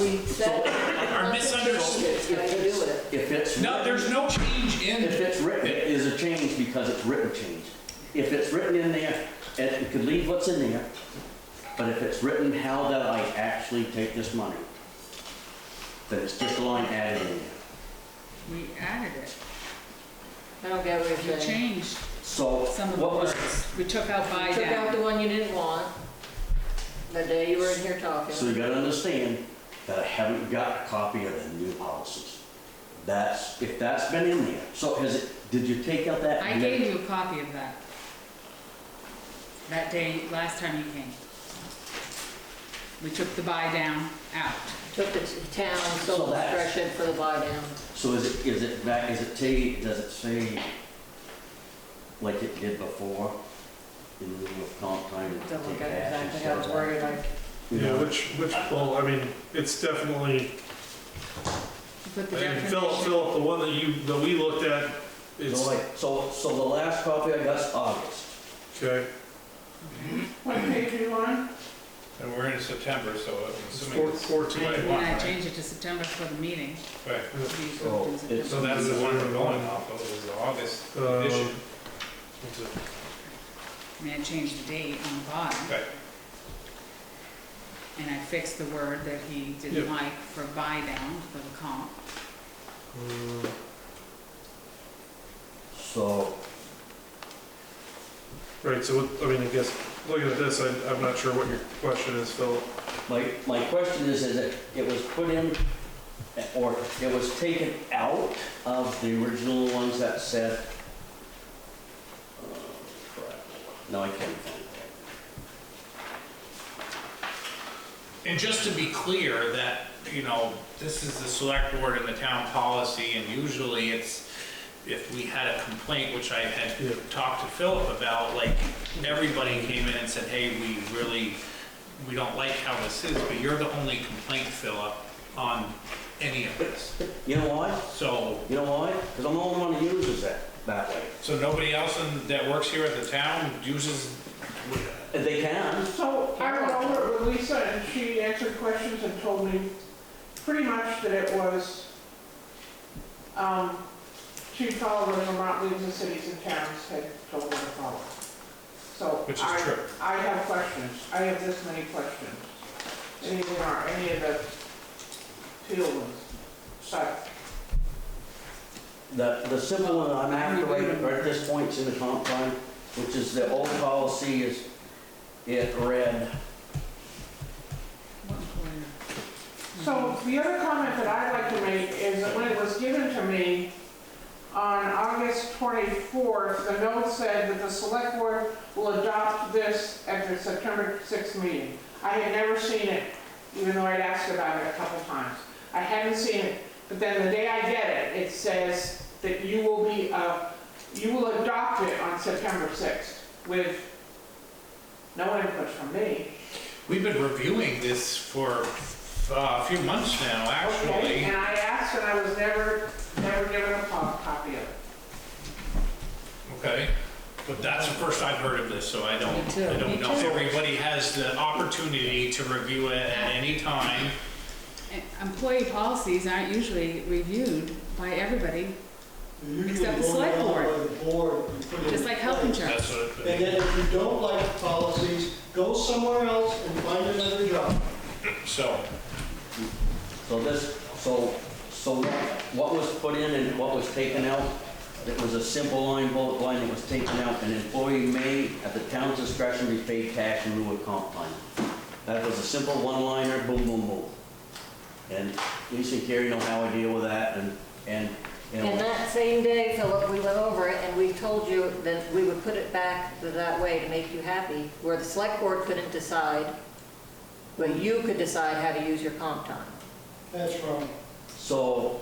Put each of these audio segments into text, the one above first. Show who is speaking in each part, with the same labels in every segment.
Speaker 1: we said.
Speaker 2: Our misunderstanding.
Speaker 1: It's gonna do it.
Speaker 3: If it's.
Speaker 2: No, there's no change
Speaker 3: If
Speaker 2: in,
Speaker 3: it's written, it is a change because it's written change. If it's written in there, and it could leave what's in there, but if it's written how that I actually take this money, then it's just a line added in there.
Speaker 4: We added it.
Speaker 1: I don't get what
Speaker 4: We
Speaker 1: you're saying.
Speaker 4: changed
Speaker 3: So
Speaker 4: some of the
Speaker 3: what was,
Speaker 4: words. We took out by
Speaker 1: Took out
Speaker 4: down.
Speaker 1: the one you didn't want, the day you were in here talking.
Speaker 3: so you gotta understand that I haven't got a copy of the new policies. That's, if that's been in there, so has it, did you take out that?
Speaker 4: I gave you a copy of that. That day, last time you came. We took the by down out.
Speaker 1: Took the t- town,
Speaker 3: So
Speaker 1: sold the
Speaker 3: that's-
Speaker 1: direction for the buy down.
Speaker 3: So is it, is it back, is it T, does it say like it did before? In the middle of comp time?
Speaker 1: Don't look
Speaker 3: take
Speaker 1: at
Speaker 3: action,
Speaker 1: exactly how it's
Speaker 3: stuff like
Speaker 1: worded, I
Speaker 3: that?
Speaker 5: Yeah, which, which, well, I mean, it's definitely,
Speaker 4: You Put the
Speaker 5: and Philip,
Speaker 4: definition.
Speaker 5: Philip, the one that you, that we looked at,
Speaker 3: So
Speaker 5: it's,
Speaker 3: like, so, so the last copy I got's August.
Speaker 5: okay,
Speaker 6: And we're in September, so I'm
Speaker 5: it's
Speaker 6: assuming
Speaker 5: four-
Speaker 6: it's.
Speaker 5: fourteen.
Speaker 4: And
Speaker 6: want,
Speaker 4: I
Speaker 6: right?
Speaker 4: changed it to September for the meeting.
Speaker 6: Right.
Speaker 4: We
Speaker 3: So
Speaker 4: approved in
Speaker 3: it's-
Speaker 6: So
Speaker 4: September.
Speaker 6: that's the one we're going off of, is the August
Speaker 5: Uh,
Speaker 6: edition.
Speaker 5: What's it?
Speaker 4: I mean, I changed the date on the bottom.
Speaker 6: Right.
Speaker 4: And I fixed the word that he didn't
Speaker 5: Yeah.
Speaker 4: like for buy down for the comp.
Speaker 5: Um,
Speaker 3: So,
Speaker 5: Right, so, what- I mean, I guess, looking at this, I, I'm not sure what your question is, Philip.
Speaker 3: my, my question is, is it, it was put in, or it was taken out of the original ones that said, oh, crap, no, I can't find that.
Speaker 6: And just to be clear, that, you know, this is the select board and the town policy, and usually it's, if we had a complaint, which I
Speaker 5: Yeah.
Speaker 6: had talked to Philip about, like, everybody came in and said, hey, we really, we don't like how this is, but you're the only complaint, Philip, on any of this.
Speaker 3: You know why?
Speaker 6: So,
Speaker 3: You know why? Because I'm the only one who uses that that way.
Speaker 6: so nobody else in- that works here at the town uses,
Speaker 3: If they can.
Speaker 7: So I went over it with Lisa and she answered questions and told me pretty much that it was, um, she followed what Vermont leaves the cities and towns had told her to follow. So
Speaker 6: which is
Speaker 7: I,
Speaker 6: true.
Speaker 7: I have questions. I have this many questions. Any of them are, any of the field ones. But
Speaker 3: The, the simple one I'm after right right at this point is in the comp plan, which is the old policy is, it read,
Speaker 4: What employer?
Speaker 7: So the other comment that I'd like to make is that when it was given to me on August 24th, the note said that the select board will adopt this at the September 6th meeting. I had never seen it, even though I'd asked about it a couple times. I hadn't seen it, but then the day I get it, it says that you will be, uh, you will adopt it on September 6th with no input from me.
Speaker 6: We've been reviewing this for uh, a few months now,
Speaker 7: Okay,
Speaker 6: actually.
Speaker 7: and I asked and I was never, never given a pop- copy of it.
Speaker 6: Okay, but that's the first I've heard of this, so I don't,
Speaker 1: Me too.
Speaker 6: I
Speaker 1: Me
Speaker 6: don't know.
Speaker 1: too.
Speaker 6: Everybody has the opportunity to review it at any time.
Speaker 4: And Employee policies aren't usually reviewed by everybody, Except the select board.
Speaker 8: By the board and put it
Speaker 4: just
Speaker 8: in
Speaker 4: like health
Speaker 8: place.
Speaker 4: insurance.
Speaker 6: That's what,
Speaker 8: And then if you don't like the policies, go somewhere else and find another job.
Speaker 6: so,
Speaker 3: so this, so, so what was put in and what was taken out, it was a simple line, bullet line, it was taken out, an employee may, at the town's discretion, be paid cash in lieu of comp plan. That was a simple one-liner, boom, boom, boom. And Lisa and Carrie know how I deal with that, and, and, and.
Speaker 1: And that same day, Philip, we went over it and we told you that we would put it back that way to make you happy, where the select board couldn't decide, but you could decide how to use your comp time.
Speaker 8: That's wrong.
Speaker 3: So,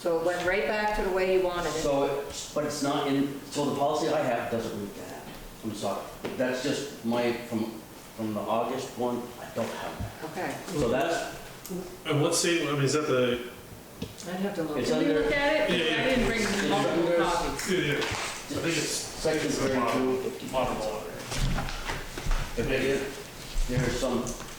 Speaker 1: So it went right back to the way you wanted it.
Speaker 3: so, it- but it's not in, so the policy I have doesn't read that. I'm sorry. That's just my, from, from the August one, I don't have that.
Speaker 1: Okay,
Speaker 3: So that's,
Speaker 5: And what's the, I mean, is that the,
Speaker 1: I'd have to
Speaker 3: it's
Speaker 1: look.
Speaker 4: Did we
Speaker 3: under
Speaker 4: look at it?
Speaker 5: Yeah, yeah.
Speaker 4: I didn't bring multiple
Speaker 3: under-
Speaker 4: copies.
Speaker 5: yeah,
Speaker 6: I think it's
Speaker 3: section
Speaker 6: it's a model.
Speaker 3: thirty-two.
Speaker 6: model order.
Speaker 3: If it is, there's some,